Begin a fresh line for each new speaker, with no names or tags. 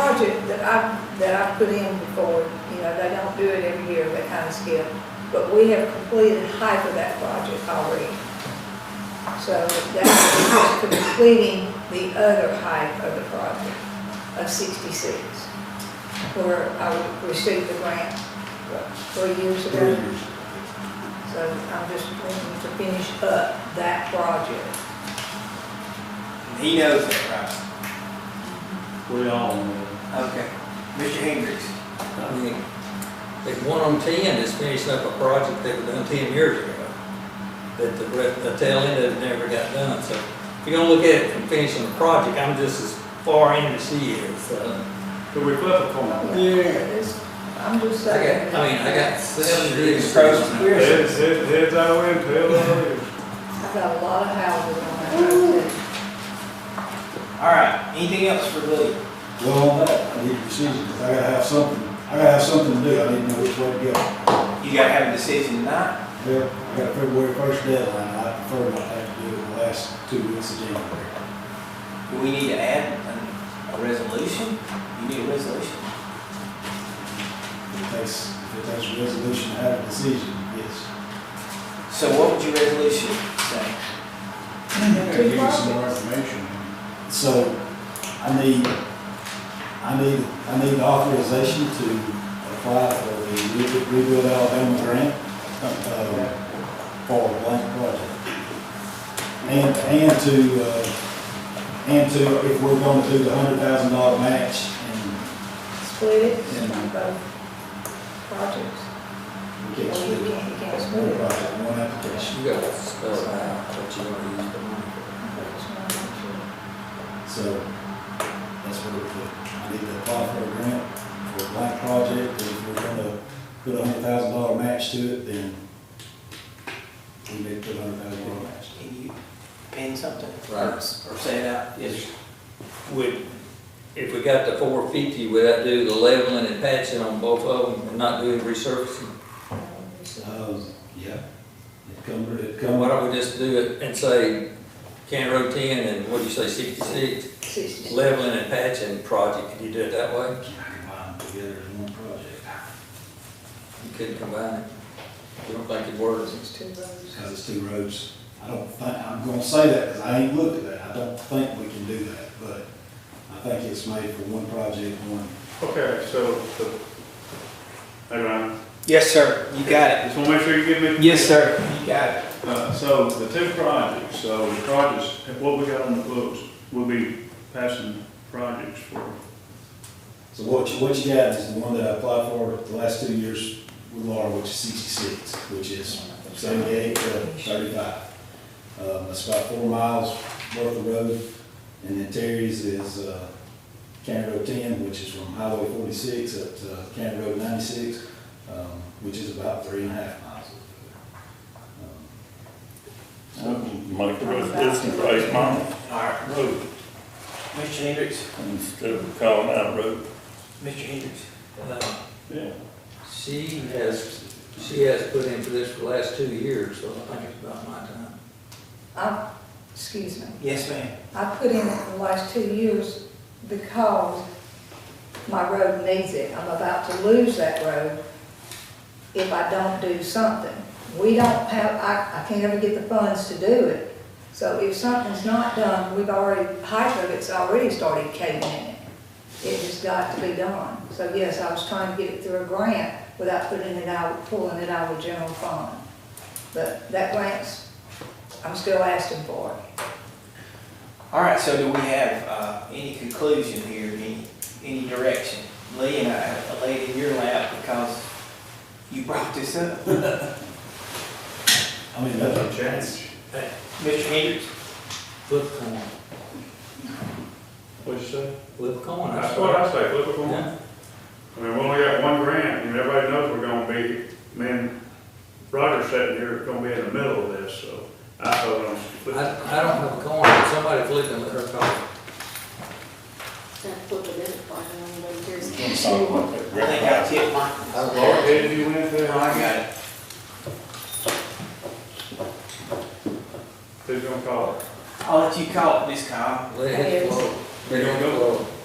project that I, that I put in before, you know, they don't do it every year, that kind of skip. But we have completed half of that project already. So that is completing the other half of the project of sixty-six, where I received the grant what, three years ago.
three years.
So I'm just wanting to finish up that project.
He knows that,
We all know.
right? Okay. Mr. Hendricks?
I mean, if one on ten is finishing up a project that was done ten years ago, that the, re- the tail end of it never got done, so if you're gonna look at it from finishing the project, I'm just as far in as she is, so.
But we flip a coin.
Yeah.
This- I'm just
I
saying.
got, I mean, I got seven years.
Approach
Well,
Pearson.
Heads, heads, heads our way, tails our way.
I've got a lot of houses on that road.
All right, anything else for Lee?
Well, I need a decision, 'cause I gotta have something, I gotta have something to do, I need to know which way to go.
You gotta have a decision tonight.
Yeah, I got a February first deadline, I prefer not to have to do it in the last two weeks of January.
Do we need to add an- a resolution? You need a resolution?
If it takes, if it takes a resolution to have a decision, yes.
So what would your resolution say?
Two projects.
information. So, I need, I need, I need authorization to apply for the Rebuild- Rebuild Alabama grant, uh, for a blank project. And, and to, uh, and to, if we're gonna do the hundred thousand dollar match, and
Split it, on both projects.
we can't split
Well, you
it.
can't- you can't
It's
split
one
it.
project, one application,
You got to spell it out, what you wanna use the money for.
so that's what we put. I need to apply for a grant for a blank project, and if we're gonna put a hundred thousand dollar match to it, then we need to put a hundred thousand dollar match.
Can you pin something?
Right.
Or say it out? Yes.
Would, if we got to four fifty, would I do the leveling and patching on both of them and not do the resurfacing?
Uh, yeah, it come, it
And
come,
Why don't we just do it and say, County Road ten and what do you say, sixty-six?
Sixty.
Leveling and patching project, could you do it that way?
combine together as one project,
You couldn't combine it? You don't think it works?
It's two roads.
because it's two roads. I don't think, I'm gonna say that, because I ain't looked at that, I don't think we can do that, but I think it's made for one project, one
Okay, so, so, hey Ryan,
Yes, sir. You got it.
just wanna make sure you give me.
Yes, sir. You got it.
Uh, so the two projects, so the projects, what we got on the books, we'll be passing projects for.
So what you, what you got is the one that I applied for the last two years with Laura, which is sixty-six, which is seventy-eight to thirty-five. Um, that's about four miles worth of road, and then Terry's is, uh, County Road ten, which is from Highway forty-six up to County Road ninety-six, um, which is about three and a half miles. Um,
Make the resolution for eight mile
All right.
road
Mr. Hendricks,
instead of calling out road.
Mr. Hendricks.
Uh,
Yeah.
She has, she has put in for this for the last two years, so I think it's about my time.
I, Uh, excuse me,
Yes, ma'am.
I put in it the last two years because my road needs it. I'm about to lose that road if I don't do something. We don't have, I, I can't ever get the funds to do it. So if something's not done, we've already, half of it's already started caving in. It just got to be done. So yes, I was trying to get it through a grant without putting it out, pulling it out of the general fund. But that grant's, I'm still asking for it.
All right, so do we have uh, any conclusion here, any, any direction? Lee and I laid in your lap because you brought this up.
I mean, that's,
change.
Mr. Hendricks?
Flip a coin,
What'd you say?
flip a coin. I
That's
swear.
what I say, flip a coin.
Yeah.
I mean, we only got one grant, and everybody knows we're gonna be, me and Roger sitting here, gonna be in the middle of this, so I vote on split.
I, I don't have a coin, but somebody flip and let her call.
That flip a minute, I don't know, here's.
I think I tipped mine.
I
Laura, did you win
No, I
there?
got it.
Who's gonna call it?
I'll let you call it, Miss Kyle.
Let it flow. Let it flow.